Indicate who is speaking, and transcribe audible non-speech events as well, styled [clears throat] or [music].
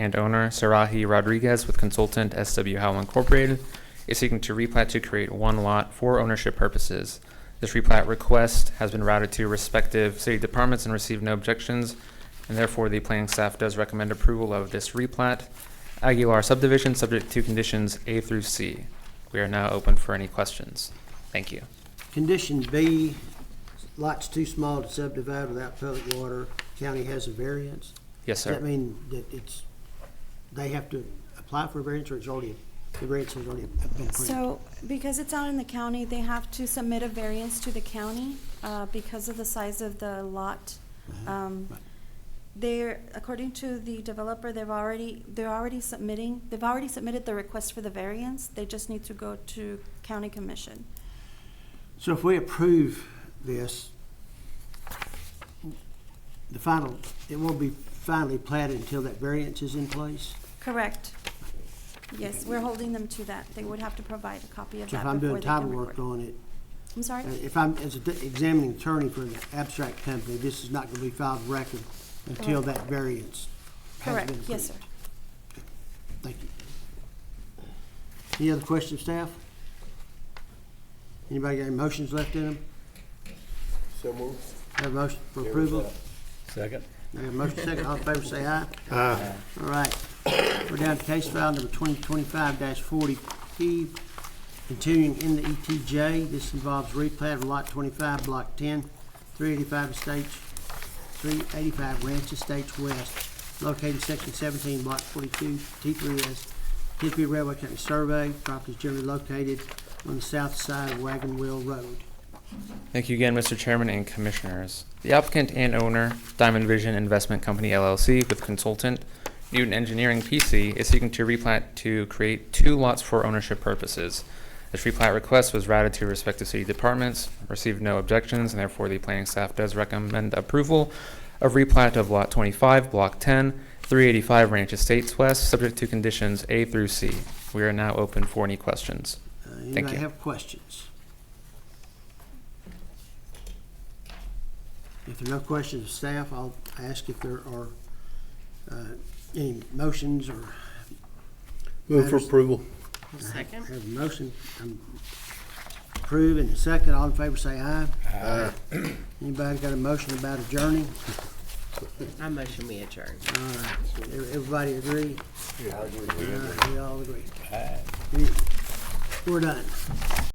Speaker 1: and owner Sarahi Rodriguez with consultant SW Howell Incorporated is seeking to replat to create one lot for ownership purposes. This replat request has been routed to respective city departments and received no objections, and therefore the planning staff does recommend approval of this replat. Aguilar subdivision, subject to conditions A through C. We are now open for any questions. Thank you.
Speaker 2: Condition B, lots too small to subdivide without public water, county has a variance.
Speaker 1: Yes,
Speaker 2: Does that
Speaker 1: sir.
Speaker 2: mean that it's, they have to apply for a variance or it's already, the variance has already been approved?
Speaker 3: So, because it's out in the county, they have to submit a variance to the county, uh, because of the size of the lot.
Speaker 2: Uh-huh.
Speaker 3: Um, they're, according to the developer, they've already, they're already submitting, they've already submitted the request for the variance, they just need to go to county commission.
Speaker 2: So if we approve this, the final, it won't be finally platted until that variance is in place?
Speaker 3: Correct. Yes, we're holding them to that, they would have to provide a copy of
Speaker 2: So
Speaker 3: that
Speaker 2: if I'm
Speaker 3: before
Speaker 2: doing
Speaker 3: they can
Speaker 2: title work
Speaker 3: record.
Speaker 2: on it,
Speaker 3: I'm sorry?
Speaker 2: uh, if I'm, as an examining attorney for an abstract company, this is not going to be filed record until that variance has been
Speaker 3: Correct,
Speaker 2: approved?
Speaker 3: yes, sir.
Speaker 2: Thank you. Any other questions, staff? Anybody got any motions left in them?
Speaker 4: So moved.
Speaker 2: Have a motion for approval?
Speaker 4: Second.
Speaker 2: Have a motion second, all in favor, say aye. Aye. All right, we're down to case file number twenty twenty-five forty P, continuing in the ETJ. This involves replat of lot twenty-five, block ten, three eighty-five Estates, three eighty-five Ranch Estates West, located in section seventeen, block forty-two, T 3s Mississippi Railway Company survey. Property is generally located on the south side of Wagon Wheel Road.
Speaker 1: Thank you again, Mr. Chairman and Commissioners. The applicant and owner, Diamond Vision Investment Company LLC with consultant Newton Engineering PC is seeking to replat to create two lots for ownership purposes. This replat request was routed to respective city departments, received no objections, and therefore the planning staff does recommend approval of replat of Lot 25, Block 10, 385 Ranch Estates West, subject to conditions A through C. We are now open for any questions.
Speaker 2: Uh, Anybody
Speaker 1: you.
Speaker 2: have questions? If there are no questions of staff, I'll ask if there are uh, any motions or.
Speaker 4: Move for
Speaker 2: matters-
Speaker 4: approval.
Speaker 2: I Have a motion, um, approve and a second, all in favor say aye. Aye. [clears throat] Anybody got a motion about adjourning?
Speaker 5: I motion we adjourn.
Speaker 2: All right, everybody agree?
Speaker 4: Yeah, I agree.
Speaker 2: All right, We all agree. We- We're done.